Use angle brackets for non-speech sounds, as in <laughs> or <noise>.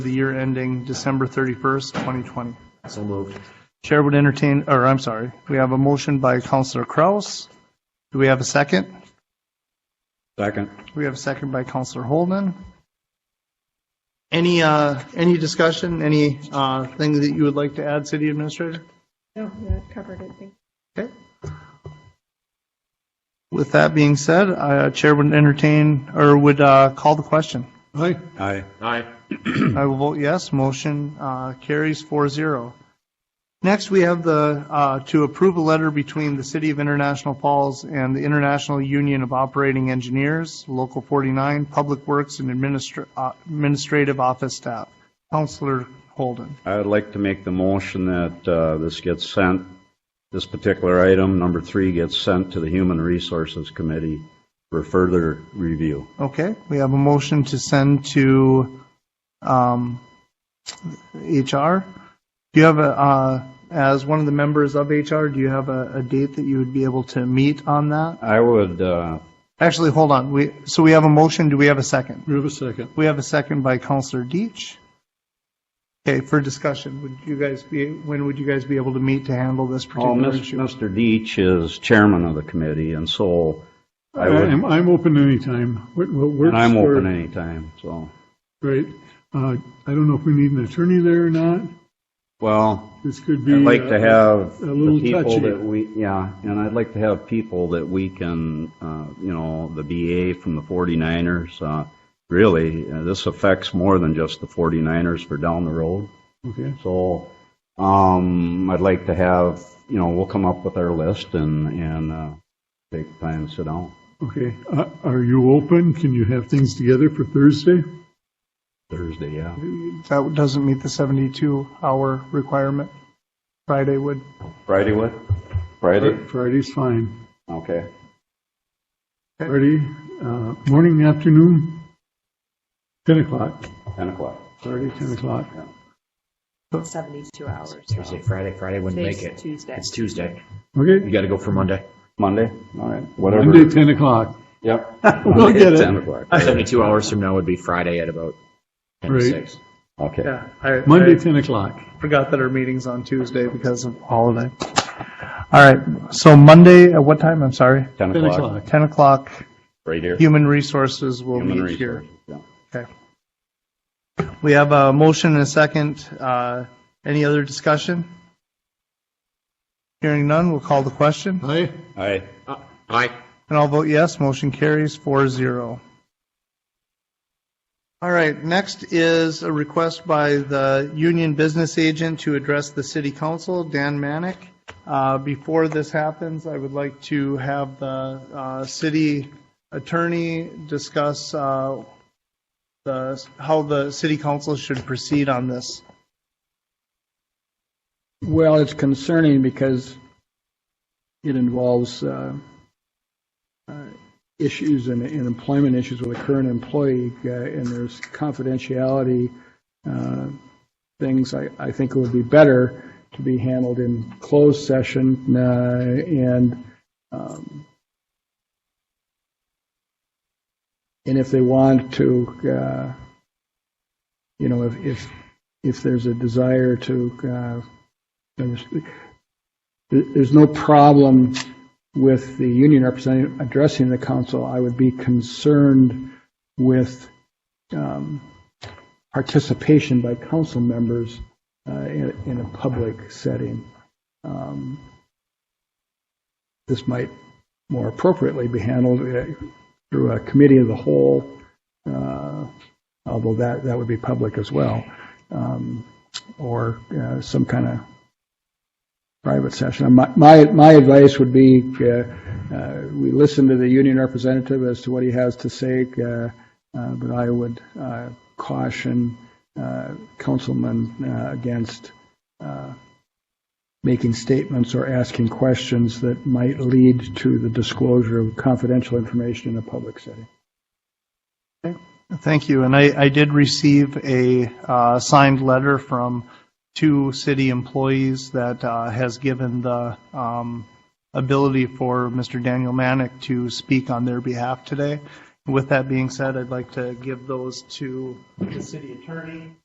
for the year ending December 31st, 2020. So moved. Chair would entertain, or I'm sorry, we have a motion by Counselor Kraus. Do we have a second? Second. We have a second by Counselor Holden. Any, uh, any discussion, any, uh, thing that you would like to add, city administrator? No, that covered Oh, it, thank Okay. With that being said, uh, Chair would entertain, or would, uh, call the question. Aye. Aye. Aye. I will vote yes. Motion uh, carries 4-0. Next, we have the, uh, to approve a letter between the City of International Falls and the International Union of Operating Engineers, Local 49, Public Works and Administr- uh, Administrative Office Staff. Counselor Holden. I would like to make the motion that uh, this gets sent, this particular item, number three, gets sent to the Human Resources Committee for further review. Okay, we have a motion to send to um, HR. Do you have a, uh, as one of the members of HR, do you have a a date that you would be able to meet on that? I would, uh, Actually, hold on. We, so we have a motion. Do we have a second? We have a second. We have a second by Counselor Deitch. Okay, for discussion, would you guys be, when would you guys be able to meet to handle this well, particular Oh, Mis- issue? Mr. Deitch is chairman of the committee, and so I would, I'm, I'm open anytime. What, what works and I'm for- open anytime, so. Right. Uh, I don't know if we need an attorney there or not. Well, This could be. I'd like uh, to have a the little people touchy. that we, yeah, and I'd like to have people that we can, uh, you know, the BA from the 49ers. uh, Really, uh, this affects more than just the 49ers for down the road. Okay, So um, I'd like to have, you know, we'll come up with our list and, and uh, take time to sit down okay. Uh, are you open? Can you have things together for Thursday? Thursday, yeah. That doesn't meet the 72-hour requirement. Friday would. Friday what? Friday? Friday's fine. Okay. Friday, uh, morning, afternoon, ten o'clock. 10 o'clock. Friday, ten o'clock. 72 hours. Thursday, Friday, Friday wouldn't make it. Tuesday. It's Tuesday. You Okay. gotta go for Monday. Monday? All right. Whatever. Monday, ten o'clock. Yep. <laughs> We'll get 10 it. o'clock. Seventy-two hours from now would be Friday at about ten to Right. six. Okay. Yeah, I, Monday, ten o'clock. forgot that our meeting's on Tuesday because of holiday. All right, so Monday, at what time? I'm sorry. 10 Ten o'clock. o'clock. 10 o'clock, Right here. Human Resources will Human meet here. resources, yeah. Okay. We have a motion and a second. Uh, Any other discussion? Hearing none, we'll call the question. Aye. Aye. Aye. And I'll vote yes, motion carries 4-0. All right, next is a request by the union business agent to address the city council, Dan Manick. Uh, Before this happens, I would like to have the uh, city attorney discuss uh, the, how the city council should proceed on this. Well, it's concerning because it involves uh, uh, issues and and employment issues with a current employee, uh, and there's confidentiality uh, things. I I think it would be better to be handled in closed session, uh, and um, and if they want to, uh, you know, if if if there's a desire to uh, there's, there- there's no problem with the union representative addressing the council. I would be concerned with um, participation by council members uh, in in a public setting. Um, This might more appropriately be handled uh, through a committee of the whole, uh, although that, that would be public as well, um, or uh, some kind of private session. My, my my advice would be, uh, uh, we listen to the union representative as to what he has to say, uh, uh, but I would uh, caution uh, councilmen uh, against uh, making statements or asking questions that might lead to the disclosure of confidential information in a public setting. Thank you. And I, I did receive a uh, signed letter from two city employees that uh, has given the um, ability for Mr. Daniel Manick to speak on their behalf today. With that being said, I'd like to give those to the city attorney